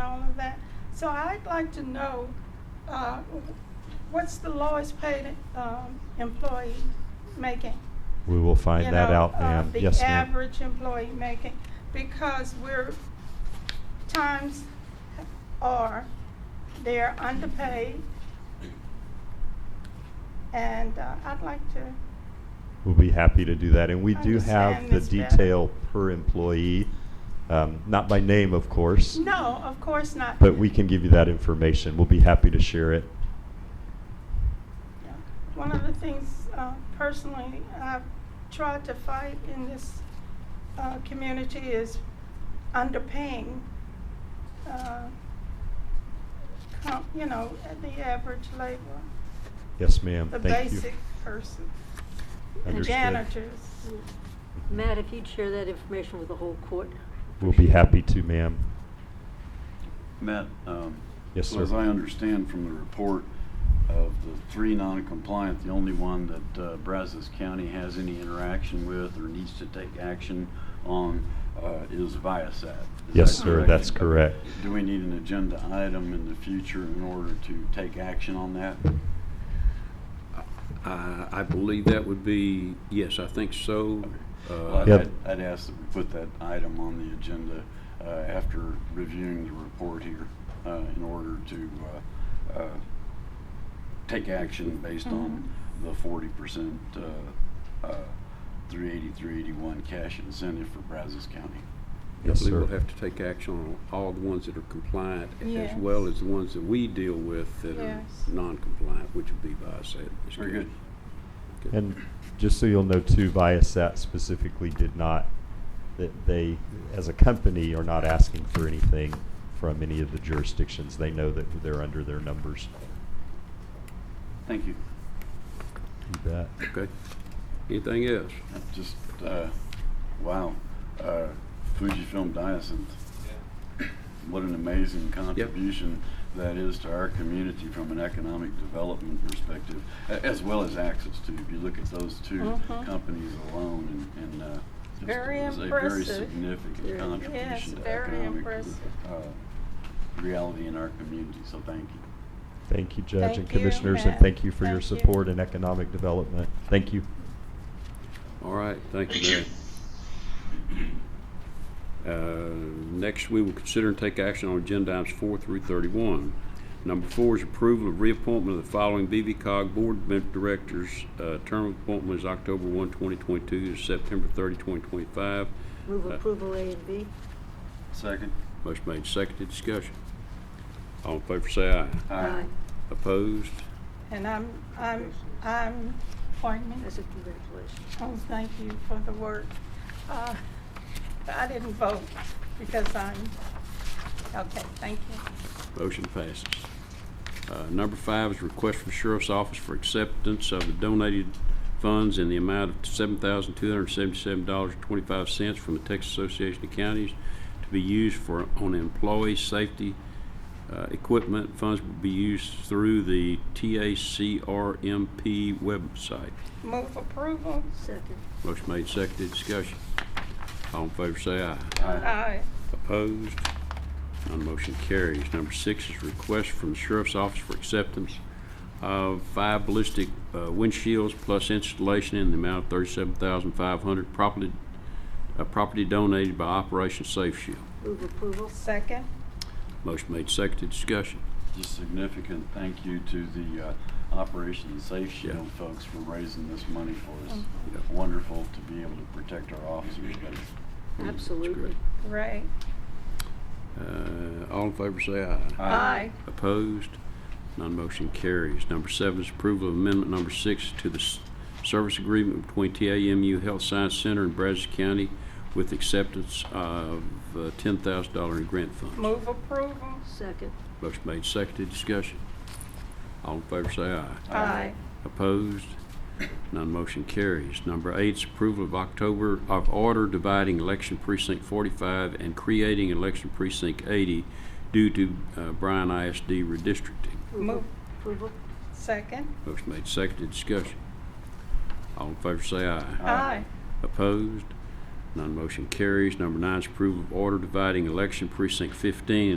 all of that. So I'd like to know, uh, what's the lowest paid um, employee making? We will find you that know, out, uh, ma'am. Yes, The ma'am. average employee making, because we're, times are, they're underpaid. And uh, I'd like to, We'll be happy to do that, and we do have Understand the this better. detail per employee, um, not by name, of course, no, of course not. but we can give you that information. We'll be happy to share it. Yeah. One of the things uh, personally I've tried to fight in this uh, community is underpaying, uh, com- you know, the average labor, Yes, ma'am. the Thank you. basic person, the Understood. janitors. Matt, if you'd share that information with the whole court. We'll be happy to, ma'am. Matt? um, Yes, so sir. As I understand from the report of the three non-compliant, the only one that uh, Brazos County has any interaction with or needs to take action on uh, is Viasat. Is Yes, that sir, that's correct. Do we need an agenda item in the future in order to take action on that? I I believe that would be, yes, I think so. Well, Uh, I'd- Yeah. I'd I'd ask that we put that item on the agenda uh, after reviewing the report here uh, in order to uh, uh, take action based on the forty percent, uh, three eighty, three eighty-one cash incentive for Brazos County. I Yes, believe sir. we'll have to take action on all the ones that are compliant, as Yes. well as the ones that we deal with that are Yes. non-compliant, which would be by said. Very good. And just so you'll know too, Viasat specifically did not, that they, as a company, are not asking for anything from any of the jurisdictions. They know that they're under their numbers. Thank you. You bet. Okay. Anything else? That's Just, uh, wow, Uh, Fujifilm Diosynth. What an amazing contribution that is to our community from an economic development perspective, a- as well as access to. If you look at those two Mhm. companies alone and, and, uh, just Very it was a very impressive. significant Very- yes, contribution to very economic, impressive. uh, reality in our community, so thank you. Thank you, Judge and Thank you, Commissioners, and Matt. thank you for your Thank you. support in economic development. Thank you. All right, thank you, Matt. Uh, Next, we will consider and take action on agenda items four through thirty-one. Number four is approval of reappointment of the following BVCOG Board of Directors. Uh, Term of appointment is October 1, 2022, to September 30, 2025. Move approval A and B. Second? Motion made, seconded, discussion. All in favor, say aye. Opposed? And I'm, I'm, I'm, pardon me? That's a congratulations. Oh, thank you for the work. Uh, I didn't vote because I'm, okay, thank you. Motion passes. Uh, Number five is request from Sheriff's Office for acceptance of the donated funds in the amount of $7,277.25 from the Texas Association of Counties to be used for, on employee safety uh, equipment. Funds will be used through the TACRMP website. Move approval. Second. Motion made, seconded, discussion. All in favor, say aye. Aye. Opposed? None motion carries. Number six is request from the Sheriff's Office for acceptance of five ballistic uh, windshields plus installation in the amount of thirty-seven thousand five hundred, property, uh, property donated by Operation Safe Shield. Move approval. Second. Motion made, seconded, discussion. Just significant thank you to the uh, Operation Safe Shield folks for raising this money for us. Wonderful to be able to protect our officers better. Absolutely. Right. Uh, all in favor, say aye. Aye. Opposed? Non-motion carries. Number seven is approval of amendment number six to the s- service agreement between TAMU Health Science Center and Brazos County with acceptance of uh, $10,000 in grant funds. Move approval. Second. Motion made, seconded, discussion. All in favor say aye. Aye. Opposed? None motion carries. Number eight is approval of October, of order dividing election precinct 45 and creating election precinct 80 due to uh, Bryan ISD redistricting. Move. Approval. Second. Motion made, seconded, discussion. All in favor say aye. Aye. Opposed? None motion carries. Number nine is approval of order dividing election precinct 15